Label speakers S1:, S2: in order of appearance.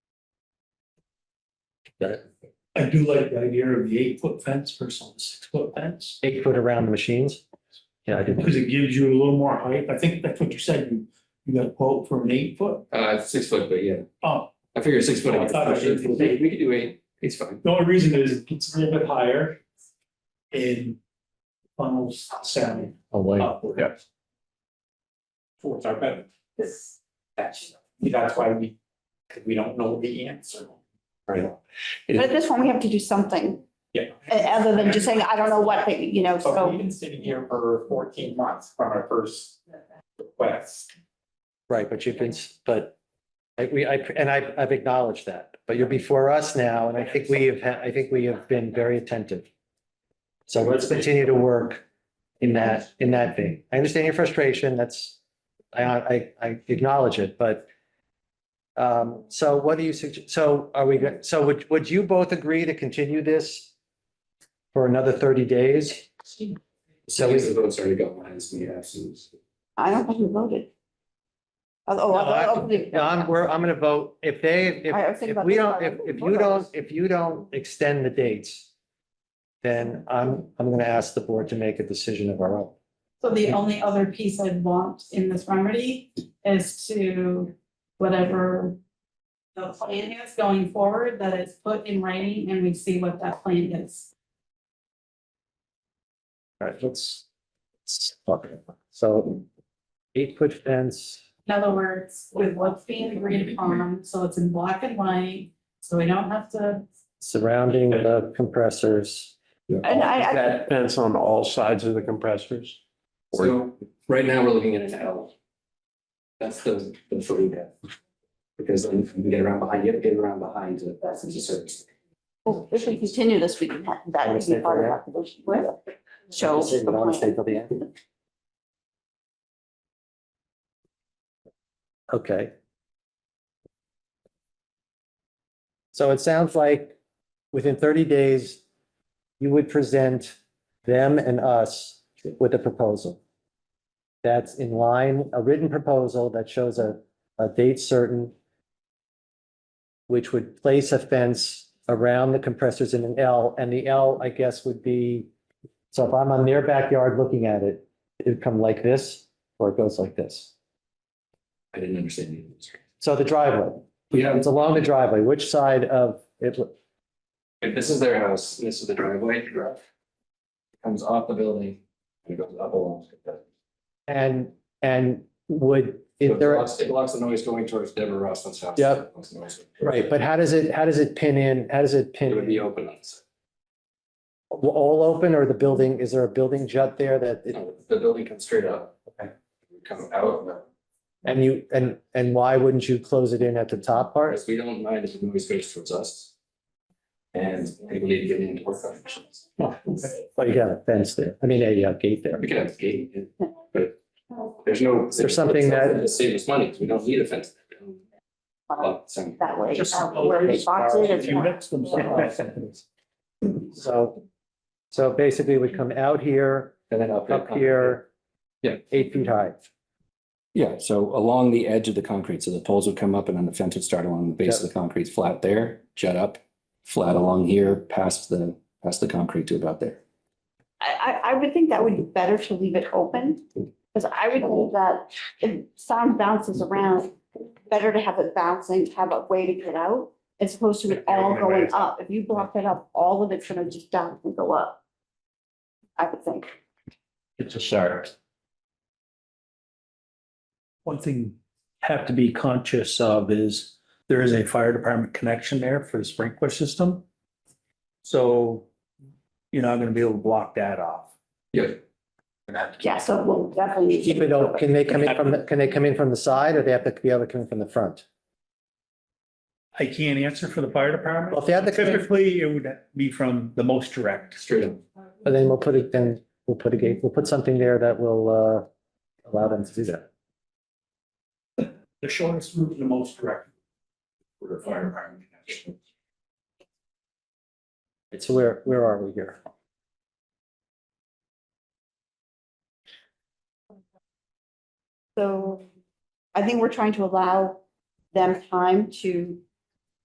S1: I do like the idea of the eight foot fence versus the six foot fence,
S2: Eight foot around the machines? Yeah, I did.
S1: because it gives you a little more height. I think that's what you said, you, you got a quote for an eight foot.
S3: Uh, six foot, but yeah,
S1: Oh,
S3: I figure six foot.
S1: I thought it was eight foot.
S3: We could do eight, it's fine.
S1: the only reason is it's a little bit higher and funnels sound
S2: Oh, wait.
S1: upward.
S4: Yeah.
S5: towards our better. This, that's, that's why we, because we don't know the answer.
S6: But at this point, we have to do something,
S5: Yeah.
S6: uh, other than just saying, I don't know what, but, you know,
S5: So
S6: so.
S5: we've been sitting here for fourteen months from our first request.
S2: Right, but you've been, but I, we, I, and I, I've acknowledged that, but you're before us now, and I think we have, ha- I think we have been very attentive. So let's continue to work in that, in that vein. I understand your frustration, that's, I, I, I acknowledge it, but um, so what do you suggest, so are we, go- so would, would you both agree to continue this for another thirty days? So
S3: So
S2: we-
S3: the votes already got mine, it's me, absolutely.
S6: I don't think we voted. Oh,
S2: No,
S6: oh,
S2: I-
S6: oh, oh,
S2: no, I'm, we're, I'm gonna vote, if they, if,
S6: I- I was thinking
S2: if
S6: about
S2: we
S6: this
S2: don't,
S6: part.
S2: if, if
S6: Vote
S2: you
S6: on
S2: don't,
S6: this.
S2: if you don't extend the dates, then I'm, I'm gonna ask the board to make a decision of our own.
S7: So the only other piece I'd want in this remedy is to whatever the plan is going forward, that it's put in writing and we see what that plan is.
S2: All right, let's, let's talk about that. So eight foot fence,
S7: In other words, with what's being agreed upon, so it's in black and white, so we don't have to,
S2: surrounding the compressors.
S6: And I, I,
S4: That fence on all sides of the compressors?
S3: So right now, we're looking at an L. That's the, the foot we have. Because then if you can get around behind, you have to get around behind to pass into service.
S6: well, if we continue this, we can, have- that would be part of our solution. Show.
S2: But I wanna stay till the end. Okay. So it sounds like within thirty days, you would present them and us with a proposal. That's in line, a written proposal that shows a, a date certain, which would place a fence around the compressors in an L, and the L, I guess, would be, so if I'm on their backyard looking at it, it'd come like this, or it goes like this.
S3: I didn't understand any of this.
S2: So the driveway,
S3: Yeah,
S2: it's along the driveway, which side of it,
S3: If this is their house, and this is the driveway. Comes off the building and goes up along.
S2: and, and would,
S3: So
S2: is
S3: it
S2: there,
S3: blocks- It blocks the noise going towards Deborah Rossman's house.
S2: Yep.
S3: Blocks the noise.
S2: right, but how does it, how does it pin in, how does it
S3: It would
S2: pin?
S3: be
S2: in?
S3: open on this.
S2: All open, or the building, is there a building jut there that, it-
S3: No, The building comes straight up.
S2: Okay.
S3: Come out,
S2: and you, and, and why wouldn't you close it in at the top part?
S3: whereas we don't mind if the noise goes towards us. And people need to get into work on machines.
S2: Oh, Well, you got a fence there, I mean, a uh, gate there.
S3: We could have a gate, yeah, but there's no.
S2: There's something that-
S3: It'd Save us money, 'cause we don't need a fence. Oh, Well, so-
S6: That way,
S1: Just
S6: uh, where they box it, it's
S1: If you
S6: not-
S1: mix them somehow.
S2: So, so basically we come out here,
S3: And then up.
S2: up here.
S3: Yeah.
S2: Eight feet high.
S3: Yeah, so along the edge of the concrete, so the poles would come up and then the fence would start along the base of the concrete, flat there, jet up, flat along here, past the, past the concrete to about there.
S6: I, I, I would think that would be better to leave it open. Because I would think that if sound bounces around, better to have it bouncing, have a way to get out. As opposed to it all going up. If you block it up, all of it's gonna just down and go up. I would think.
S4: It's a start.
S1: One thing you have to be conscious of is there is a fire department connection there for the sprinkler system. So you're not gonna be able to block that off.
S3: Yeah.
S6: Yeah, so we'll definitely. need to-
S2: Keep it open. Can they come in from, the- can they come in from the side or they have to be able to come in from the front?
S1: I can't answer for the fire department.
S2: Well, if they had to come in,
S1: Typically, it would be from the most direct.
S3: Straight up.
S2: then we'll put it, then we'll put a gate, we'll put something there that will uh, allow them to do that.
S1: The shortest route, the most direct. For the fire department connection.
S2: So where, where are we here?
S6: So I think we're trying to allow them time to